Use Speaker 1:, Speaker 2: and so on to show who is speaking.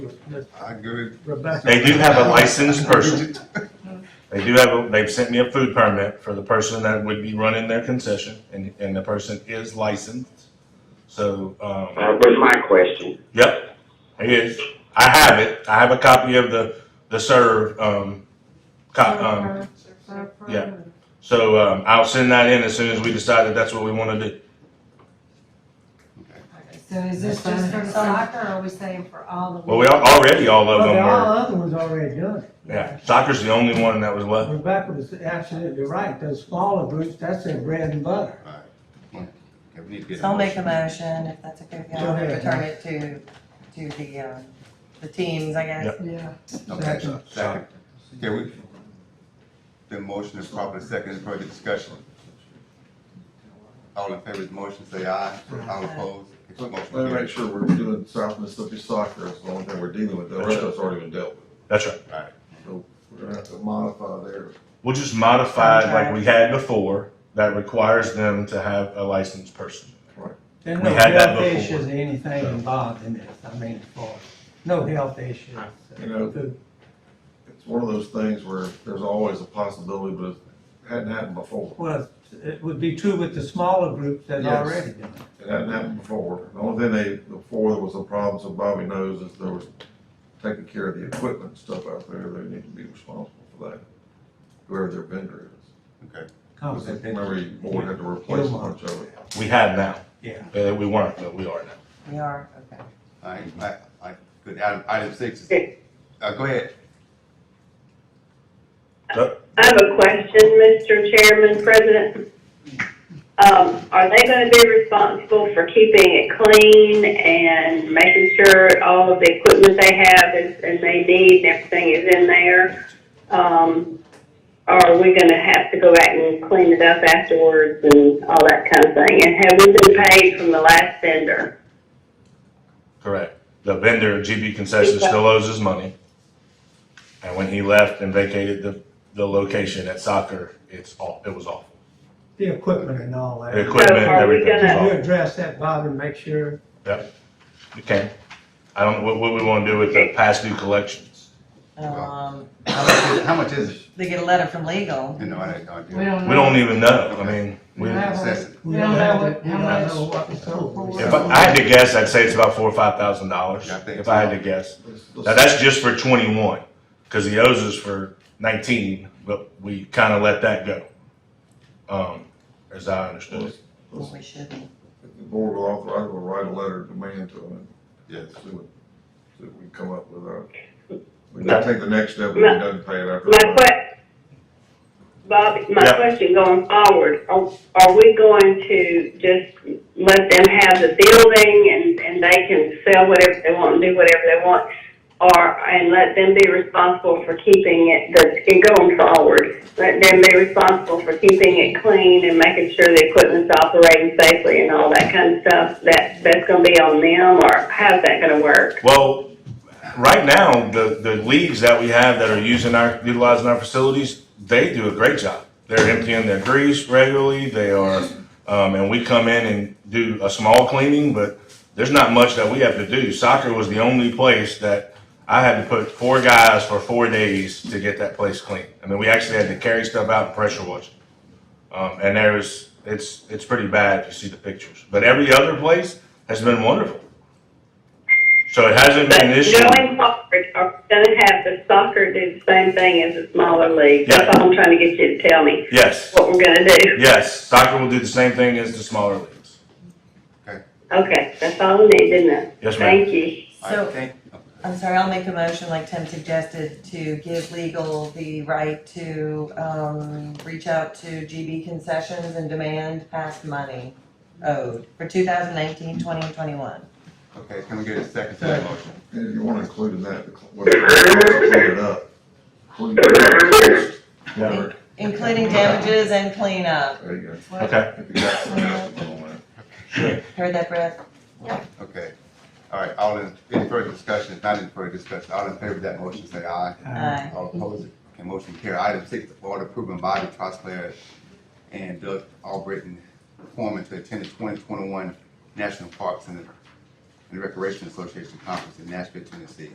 Speaker 1: Miss
Speaker 2: I agree.
Speaker 1: Rebecca.
Speaker 3: They do have a licensed person. They do have, a they've sent me a food permit for the person that would be running their concession, and, and the person is licensed. So, um,
Speaker 4: That was Uh, my question.
Speaker 3: yep, he is. I have it. I have a copy of the, the serve, um, co- um, yeah. So, um, I'll send that in as soon as we decide that that's what we wanna do.
Speaker 5: So is this just for soccer, or are we saying for all of them?
Speaker 3: Well, we are already all of
Speaker 1: Well, the
Speaker 3: them
Speaker 1: all
Speaker 3: were,
Speaker 1: other ones already done.
Speaker 3: yeah, soccer's the only one that was left.
Speaker 1: Rebecca was absolutely right, those smaller groups, that's their bread and butter.
Speaker 6: So I'll make a motion, if that's okay with
Speaker 1: Go
Speaker 6: y'all, to
Speaker 1: ahead.
Speaker 6: return it to, to the, um, the teams, I guess.
Speaker 3: Yep.
Speaker 1: Yeah.
Speaker 2: Okay, so, second. Okay, we, the motion is properly second, Any further discussion. All in favor of the motion, say aye. All opposed, if the motion
Speaker 7: Let me make
Speaker 2: carries.
Speaker 7: sure we're doing South Mississippi soccer, it's the only thing we're dealing with, the rest of it's already been dealt with.
Speaker 3: That's right.
Speaker 7: We're gonna have to modify there.
Speaker 3: We'll just modify it like we had before, that requires them to have a licensed person.
Speaker 1: There's
Speaker 3: We
Speaker 1: no
Speaker 3: had that
Speaker 1: health
Speaker 3: before.
Speaker 1: issues or anything involved in this, I mean, for, no health issues.
Speaker 7: You know- It's one of those things where there's always a possibility, but it hadn't happened before.
Speaker 1: Well, it would be true with the smaller groups that
Speaker 7: Yes.
Speaker 1: already done. it.
Speaker 7: It hadn't happened before. The only thing they, before there was a problem, so Bobby knows, is there was taking care of the equipment and stuff out there, they need to be responsible for that, whoever their vendor is. Because
Speaker 1: Complicated.
Speaker 7: Remember, you board had to replace a bunch of it.
Speaker 3: We have now.
Speaker 1: Yeah.
Speaker 3: Uh, we weren't, but we are now.
Speaker 6: We are, okay.
Speaker 2: All right, all right, all right, good, item, item six is, uh, go ahead.
Speaker 8: I have a question, Mr. Chairman, President. Um, are they gonna be responsible for keeping it clean and making sure all of the equipment they have is, and they need, and everything is in there? Um, or are we gonna have to go back and clean it up afterwards and all that kind of thing? And have we been paid from the last vendor?
Speaker 3: Correct. The vendor, GB Concession, still owes his money. And when he left and vacated the, the location at soccer, it's all, it was awful.
Speaker 1: The equipment and all that.
Speaker 3: The equipment,
Speaker 8: are we
Speaker 3: everything was
Speaker 8: gonna-
Speaker 1: You
Speaker 3: awful.
Speaker 1: address that, Bob, and make sure,
Speaker 3: You can. I don't, what, what we wanna do with the past due collections?
Speaker 6: Um,
Speaker 2: How much is- How much is it?
Speaker 6: they get a letter from legal.
Speaker 2: You know, I, I do.
Speaker 5: We don't
Speaker 3: We
Speaker 5: know.
Speaker 3: don't even know. I mean, we, if
Speaker 2: Assess it.
Speaker 1: we
Speaker 5: We
Speaker 1: don't
Speaker 5: don't
Speaker 1: have
Speaker 5: know
Speaker 1: it,
Speaker 5: what-
Speaker 1: we
Speaker 5: how
Speaker 1: don't
Speaker 5: much-
Speaker 1: know what was sold.
Speaker 5: Yeah,
Speaker 3: I I had to guess, I'd say it's about four or five thousand dollars,
Speaker 2: Yeah, I think
Speaker 3: if I had to
Speaker 2: so.
Speaker 3: guess.
Speaker 7: Let's-
Speaker 3: Now,
Speaker 7: let's-
Speaker 3: that's just for twenty-one, cause he owes us for nineteen, but we kinda let that go. Um, as I understood it.
Speaker 7: let's-
Speaker 6: Well,
Speaker 7: let's-
Speaker 6: we shouldn't.
Speaker 7: if The board will authorize, will write a letter demand to them
Speaker 2: Yes.
Speaker 7: and see what, see what we come up with. uh, We can take the next step, we
Speaker 8: My-
Speaker 7: don't pay it after.
Speaker 8: My que- Bob, my
Speaker 3: Yeah.
Speaker 8: question going forward, are, are we going to just let them have the building and, and they can sell whatever they want and do whatever they want? Or, and let them be responsible for keeping it, the, and going forward, let them be responsible for keeping it clean and making sure the equipment's operating safely and all that kind of stuff? That, that's gonna be on them, or how's that gonna work?
Speaker 3: Well, right now, the, the leagues that we have that are using our, utilizing our facilities, they do a great job. They're emptying their grease regularly, they are, um, and we come in and do a small cleaning, but there's not much that we have to do. Soccer was the only place that I had to put four guys for four days to get that place clean. I mean, we actually had to carry stuff out and pressure wash. it. Um, and there's, it's, it's pretty bad if you see the pictures. But every other place has been wonderful. So it hasn't
Speaker 8: But
Speaker 3: been an issue.
Speaker 8: Going forward, are we uh, gonna have the soccer do the same thing as the smaller league? That's all I'm trying to get you to tell me,
Speaker 3: Yes,
Speaker 8: what we're gonna do.
Speaker 3: yes. Soccer will do the same thing as the smaller leagues.
Speaker 8: Okay, that's all I need, didn't it?
Speaker 3: Yes, ma'am.
Speaker 8: Thank you.
Speaker 2: All right,
Speaker 6: So,
Speaker 2: thank-
Speaker 6: I'm sorry, I'll make a motion, like Tim suggested, to give legal the right to, um, reach out to GB concessions and demand past money owed for 2019, 20, and 21.
Speaker 2: Okay, can we get a second to that motion?
Speaker 7: And if you want to include in that, the cl- what- clean it up. Clean it up.
Speaker 3: Yeah.
Speaker 6: Including damages and cleanup.
Speaker 7: There you go.
Speaker 3: Okay.
Speaker 7: If you got something else to go on there.
Speaker 6: Heard that, Brett?
Speaker 2: Okay, all right, all in, any further discussion, if not any further discussion, all in favor of that motion, say aye.
Speaker 6: Aye.
Speaker 2: All opposed, okay, motion carry. Item six, order approving Bobby Trostler and Doug Albritton performance to attend the twenty twenty-one National Parks and and Recreation Association Conference in Nashville, Tennessee.